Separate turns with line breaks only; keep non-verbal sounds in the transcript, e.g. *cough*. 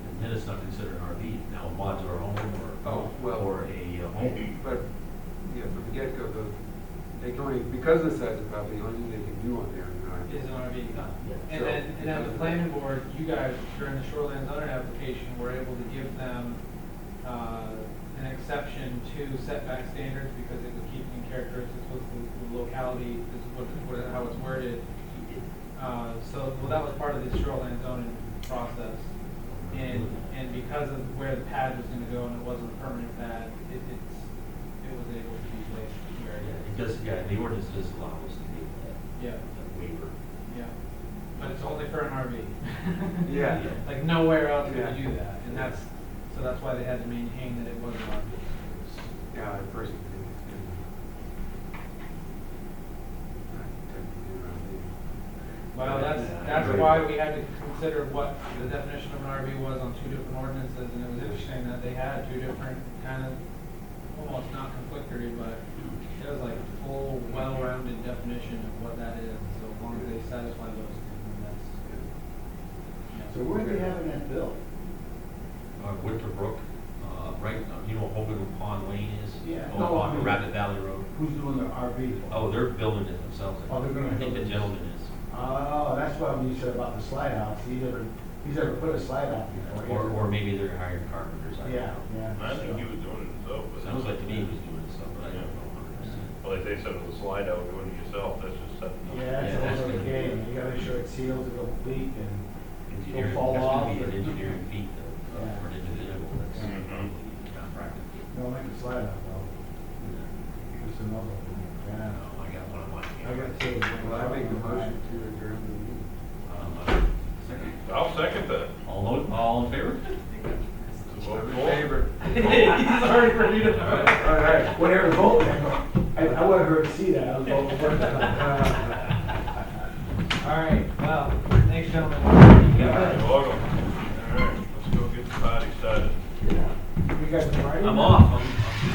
that's not considered an RV. Now, a modular home
Oh,
or,
well,
or a uh, home.
but, yeah, from the get-go, the, they can only, because of the size of the property, the only thing they can do on there is
is
an
an RV.
Yeah.
And then, and then the planning board, you guys, during the shoreline zoning application, were able to give them, uh, an exception to setback standards because it was keeping characteristics with the- the locality, is what, what, how it's worded. Uh, so, well, that was part of the shoreline zoning process. And, and because of where the pad was gonna go and it wasn't a permanent pad, it, it's, it was able to be placed where
Yeah,
it
It does, yeah, the ordinance does allow us to do that,
is. Yeah.
that waiver.
Yeah, but it's only for an RV.
Yeah.
*laughs* Like nowhere else would
Yeah.
you do that, and that's, so that's why they had to maintain that it was an RV.
RV. Yeah, a person can do it. Not technically an RV.
Well, that's,
Yeah, I
that's
agree.
why we had to consider what the definition of an RV was on two different ordinances, and it was interesting that they had two different kind of, almost not conflictory, but it was like full, well-rounded definition of what that is, so as long as they satisfy those, then that's,
Yeah.
you know.
So where are they having that built?
Uh, Winterbrook, uh, right, uh, you know where Hogan Pond Lane is?
Yeah.
Oh,
No, I
On
mean-
Rabbit Valley Road.
Who's doing the RV?
Oh, they're building it themselves.
Oh, they're gonna
I think
build
the
it.
gentleman is.
Oh, that's why when you said about the slide house, he's ever, he's ever put a slide out before.
Or, or maybe they're hiring carpenters, I don't
Oh, Yeah,
know.
yeah.
I think he was doing it himself, but.
Sounds like to me he was doing stuff, but I don't know hundred percent.
Well, like they said with the slide out, doing it yourself, that's just something.
Yeah,
Yeah, that's
it's over the
gonna-
game, you gotta make sure it's sealed, it'll leak and.
Engineering,
fall
that's
off
gonna be an
or-
engineering feat though, uh,
Yeah.
for an individual, that's
Mhm.
not practical.
Don't make a slide out though. It's another one.
I
Yeah.
don't know, I got one on my
I
camera.
got two.
Well, I make the motion to adjourn the meeting.
Um, uh, second.
I'll second that.
All, tho- all in
*laughs*
favor?
Vote
I'm in
for.
favor.
*laughs* Sorry for you
All
to.
right, all right.
Whatever vote, I, I wanted her to see that, I was voting for her.
*laughs*
All right, well, thanks, gentlemen.
You're welcome. All right, let's go get the party started.
You guys are
*laughs*
right?
I'm off.